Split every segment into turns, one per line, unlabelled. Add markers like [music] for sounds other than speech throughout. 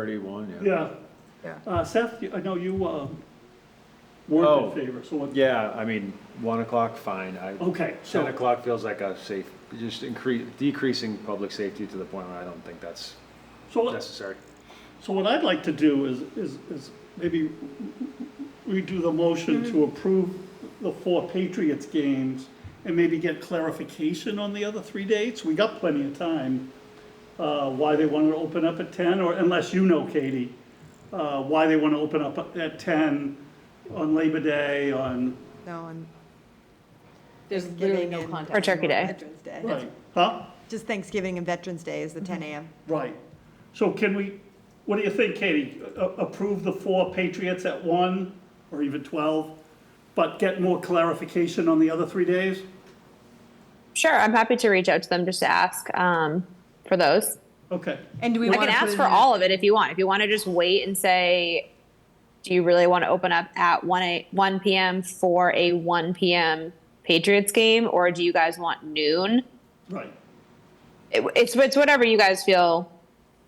Thirty-one, yeah.
Yeah.
Yeah.
Uh, Seth, you- I know you, um, weren't
Oh.
in favor, so, what-
Yeah, I mean, one o'clock, fine. I,
okay,
ten
Oh, so,
o'clock feels like a safe, just increase, decreasing public safety to the point where I don't think that's
so, let-
necessary.
so what I'd like to do is, is, is maybe redo the motion to approve the four Patriots games and maybe get clarification on the other three dates. We got plenty of time, uh, why they wanted to open up at ten, or unless you know, Katie, uh, why they want to open up at ten on Labor Day, on,
No, and
There's literally
Thanksgiving
no
and-
contact.
Or Turkey Day.
Veterans Day.
right, huh?
just Thanksgiving and Veterans Day is the
Mm-hmm.
10 AM.
Right. So can we, what do you think, Katie? A- Approve the four Patriots at one, or even 12, but get more clarification on the other three days?
Sure, I'm happy to reach out to them just to ask um, for those.
Okay,
And do we
I
want
can
to
ask for all of it if you want. If you want to just wait and say, do you really want to open up at 1, a, 1 p.m. for a 1 p.m. Patriots game, or do you guys want noon?
right.
It, it's, it's whatever you guys feel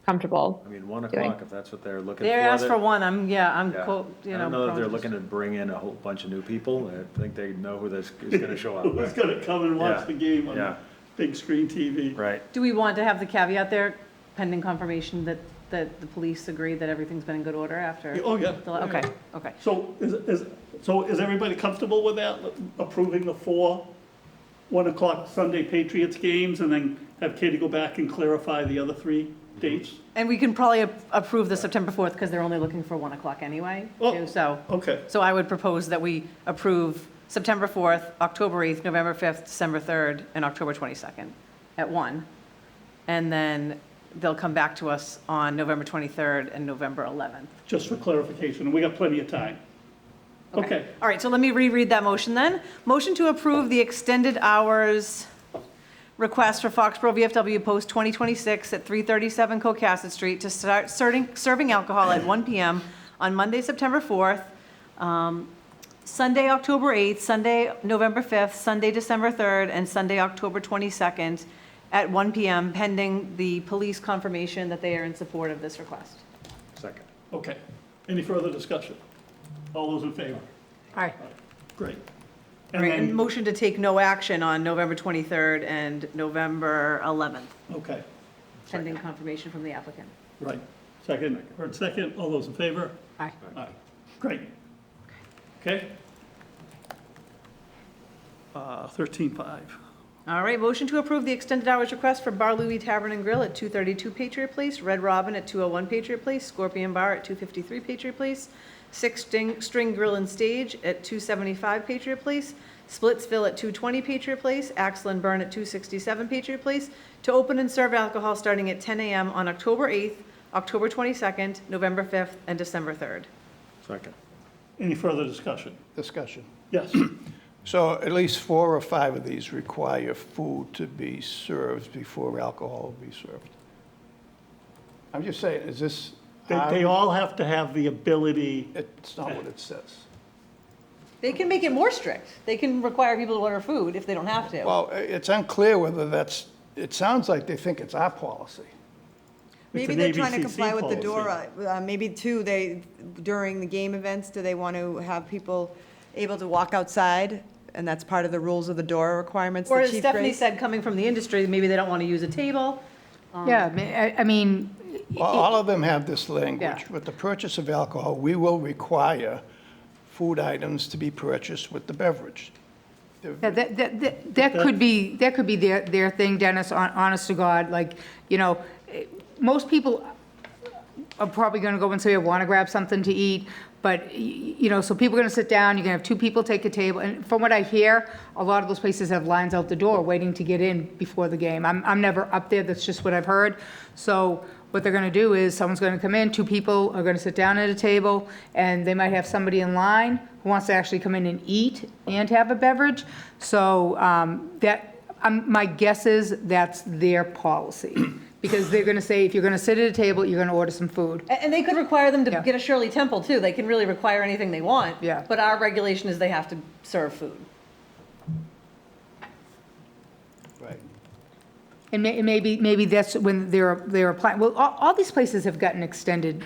comfortable.
I mean, one
Doing.
o'clock, if that's what they're looking for.
They asked
they're-
for one, I'm, yeah, I'm,
yeah.
cool, you know.
I don't know that they're
prone to-
looking to bring in a whole bunch of new people. I think they know who this is gonna show
[laughs] Who's
up.
going to come and watch
Yeah,
the game on
yeah.
big screen TV?
Right.
Do we want to have the caveat there pending confirmation that, that the police agree that everything's been in good order after?
Oh, yeah.
the- Okay, okay.
So is, is, so is everybody comfortable with that, approving the four 1 o'clock Sunday Patriots games, and then have Katie go back and clarify the other three
Mm-hmm.
dates?
And we can probably a- approve the September 4th because they're only looking for 1 o'clock anyway,
Oh.
too, so.
Okay,
So I would propose that we approve September 4th, October 8th, November 5th, December 3rd, and October 22nd at 1. And then they'll come back to us on November 23rd and November 11th.
just for clarification, we got plenty of time. Okay.
All right, so let me reread that motion then. Motion to approve the extended hours request for Foxborough VFW Post 2026 at 337 Cocasset Street to start serving serving alcohol at 1 PM on Monday, September 4th, um, Sunday, October 8th, Sunday, November 5th, Sunday, December 3rd, and Sunday, October 22nd at 1 PM pending the police confirmation that they are in support of this request.
Second.
Okay, any further discussion? All those in favor?
All right.
Great.
All
And
right, and
then,
motion to take no action on November 23rd and November 11th,
okay,
pending confirmation from the applicant.
right. Second, heard second, all those in favor?
Aye.
Aye. Great. Okay? Uh, thirteen-five.
All right, motion to approve the extended hours request for Bar Louie Tavern and Grill at 232 Patriot Place, Red Robin at 201 Patriot Place, Scorpion Bar at 253 Patriot Place, Six Sting- String Grill and Stage at 275 Patriot Place, Splitsville at 220 Patriot Place, Axel and Burn at 267 Patriot Place, to open and serve alcohol starting at 10 a.m. on October 8th, October 22nd, November 5th, and December 3rd.
Second.
Any further discussion?
discussion.
Yes,
So at least four or five of these require food to be served before alcohol will be served. I'm just saying, is this?
they, they
Um,
all have to have the ability,
It's not what it says.
They can make it more strict. They can require people to order food if they don't have to.
Well, i- it's unclear whether that's, it sounds like they think it's our policy.
Maybe
an
they're trying to
ABCC
comply with the
policy.
DORA. Uh, Maybe too, they, during the game events, do they want to have people able to walk outside? And that's part of the rules of the DORA requirements
Or
that
as
Chief
Stephanie
Grace?
said, coming from the industry, maybe they don't want to use a table.
Yeah, ma- I, I mean,
Well, All of them have this
Yeah.
language. With the purchase of alcohol, we will require food items to be purchased with the beverage.
that, that- that, that- that could be, that could be their, their thing, Dennis, hon- honest to God, like, you know, eh, most people are probably gonna go and say, I wanna grab something to eat, but, y- you know, so people are gonna sit down, you're gonna have two people take a table, and from what I hear, a lot of those places have lines out the door waiting to get in before the game. I'm, I'm never up there, that's just what I've heard. So what they're gonna do is, someone's gonna come in, two people are gonna sit down at a table, and they might have somebody in line who wants to actually come in and eat and have a beverage. So, um, that, um, my guess is that's their policy, because they're gonna say, if you're gonna sit at a table, you're gonna order some food.
A- And they could require them to
Yeah.
get a Shirley Temple, too. They can really require anything they want.
Yeah.
But our regulation is they have to serve food.
Right.
And may- and maybe, maybe that's when they're, they're applying, well, all, all these places have gotten extended